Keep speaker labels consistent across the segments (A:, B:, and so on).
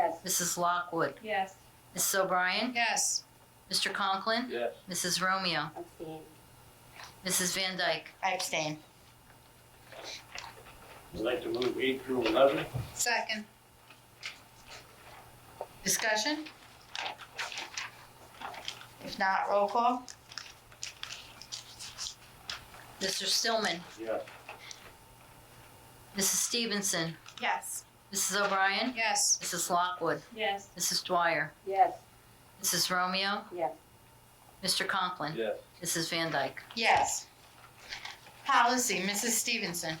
A: Yes.
B: Mrs. Lockwood,
A: Yes.
B: Mrs. O'Brien,
C: Yes.
B: Mr. Conklin,
D: Yes.
B: Mrs. Romeo,
A: Abstain.
B: Mrs. Van Dyke.
C: I abstain.
D: I'd like to move eight through eleven.
C: Second. Discussion? If not, roll call?
B: Mr. Stillman,
D: Yes.
B: Mrs. Stevenson,
C: Yes.
B: Mrs. O'Brien,
C: Yes.
B: Mrs. Lockwood,
A: Yes.
B: Mrs. Dwyer,
A: Yes.
B: Mrs. Romeo,
A: Yes.
B: Mr. Conklin,
D: Yes.
B: Mrs. Van Dyke.
C: Yes. Policy, Mrs. Stevenson.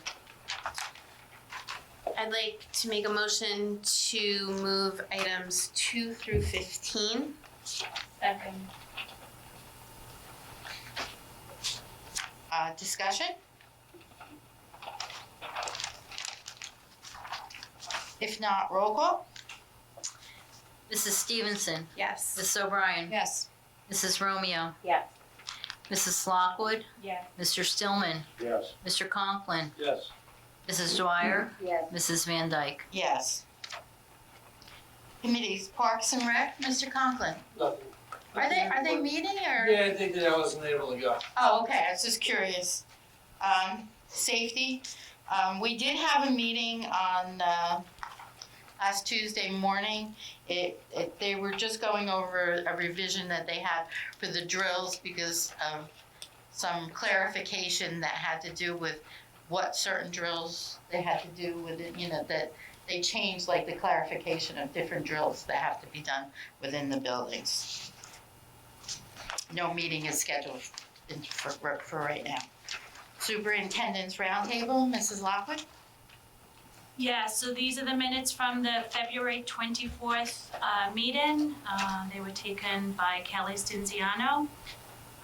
E: I'd like to make a motion to move items two through fifteen.
A: Second.
C: Uh, discussion? If not, roll call?
B: Mrs. Stevenson,
E: Yes.
B: Mrs. O'Brien,
C: Yes.
B: Mrs. Romeo,
A: Yes.
B: Mrs. Lockwood,
A: Yes.
B: Mr. Stillman,
D: Yes.
B: Mr. Conklin,
D: Yes.
B: Mrs. Dwyer,
A: Yes.
B: Mrs. Van Dyke.
C: Yes. Committees, Parks and Rec, Mr. Conklin.
F: Nothing.
C: Are they, are they meeting or?
F: Yeah, I think that I wasn't able to go.
C: Oh, okay, I was just curious. Um, safety, um, we did have a meeting on, uh, last Tuesday morning. It, it, they were just going over a revision that they had for the drills because of some clarification that had to do with what certain drills they had to do with it, you know, that they changed like the clarification of different drills that have to be done within the buildings. No meeting is scheduled in- for, for for right now. Superintendent's roundtable, Mrs. Lockwood?
G: Yeah, so these are the minutes from the February 24th uh, meeting. Uh, They were taken by Kelly Stinziano.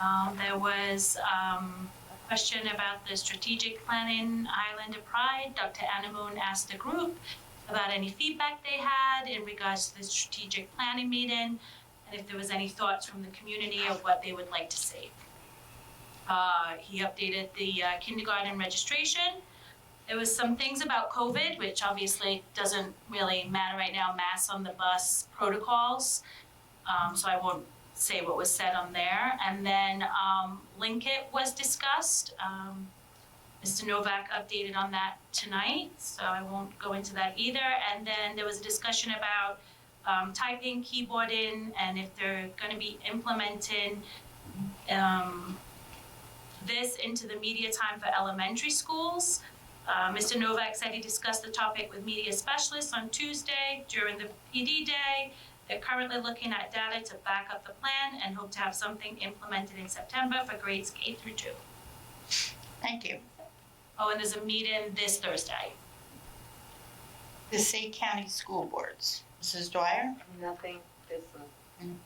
G: Um, There was um, a question about the strategic planning Island of Pride. Dr. Anamoon asked the group about any feedback they had in regards to the strategic planning meeting and if there was any thoughts from the community of what they would like to see. Uh, He updated the uh, kindergarten registration there was some things about COVID, which obviously doesn't really matter right now, masks on the bus protocols. Um, so I won't say what was said on there. And then, um, Linkit was discussed. Um, Mr. Novak updated on that tonight, so I won't go into that either. And then there was a discussion about, um, typing, keyboarding, and if they're gonna be implementing, um, this into the media time for elementary schools. Uh, Mr. Novak said he discussed the topic with media specialists on Tuesday during the PD day. They're currently looking at data to back up the plan and hope to have something implemented in September for grades K through two.
C: Thank you.
G: Oh, and there's a meeting this Thursday.
C: The State County School Boards, Mrs. Dwyer?
A: Nothing. This one.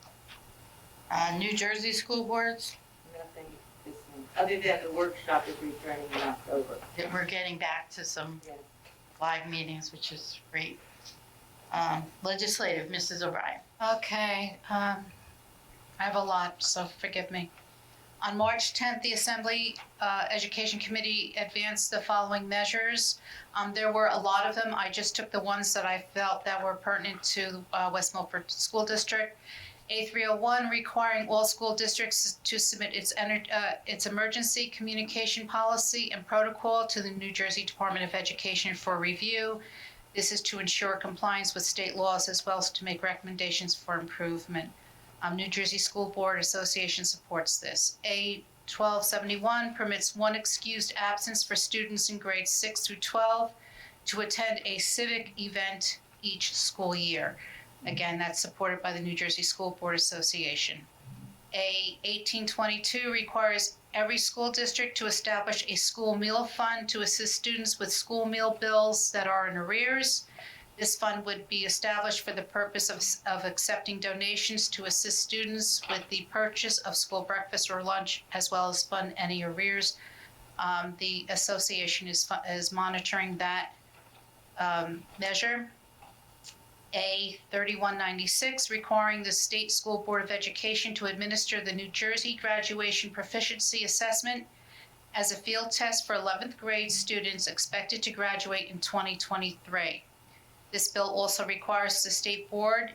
C: Uh, New Jersey School Boards,
A: Nothing. This one. Other than the workshop is returning in October.
C: that we're getting back to some
A: Yes.
C: live meetings, which is great. Um, legislative, Mrs. O'Brien.
H: Okay, um, I have a lot, so forgive me. On March 10th, the Assembly uh, Education Committee advanced the following measures. Um, There were a lot of them. I just took the ones that I felt that were pertinent to uh, West Milford School District. A301 requiring all school districts to submit its ener- uh, its emergency communication policy and protocol to the New Jersey Department of Education for review. This is to ensure compliance with state laws as well as to make recommendations for improvement. Um, New Jersey School Board Association supports this. A 1271 permits one excused absence for students in grades 6 through 12 to attend a civic event each school year. Again, that's supported by the New Jersey School Board Association. A 1822 requires every school district to establish a school meal fund to assist students with school meal bills that are in arrears. This fund would be established for the purpose of, of accepting donations to assist students with the purchase of school breakfast or lunch, as well as fund any arrears. Um, the association is, fu- is monitoring that, um, measure. A 3196, requiring the State School Board of Education to administer the New Jersey Graduation Proficiency Assessment as a field test for 11th grade students expected to graduate in 2023. This bill also requires the state board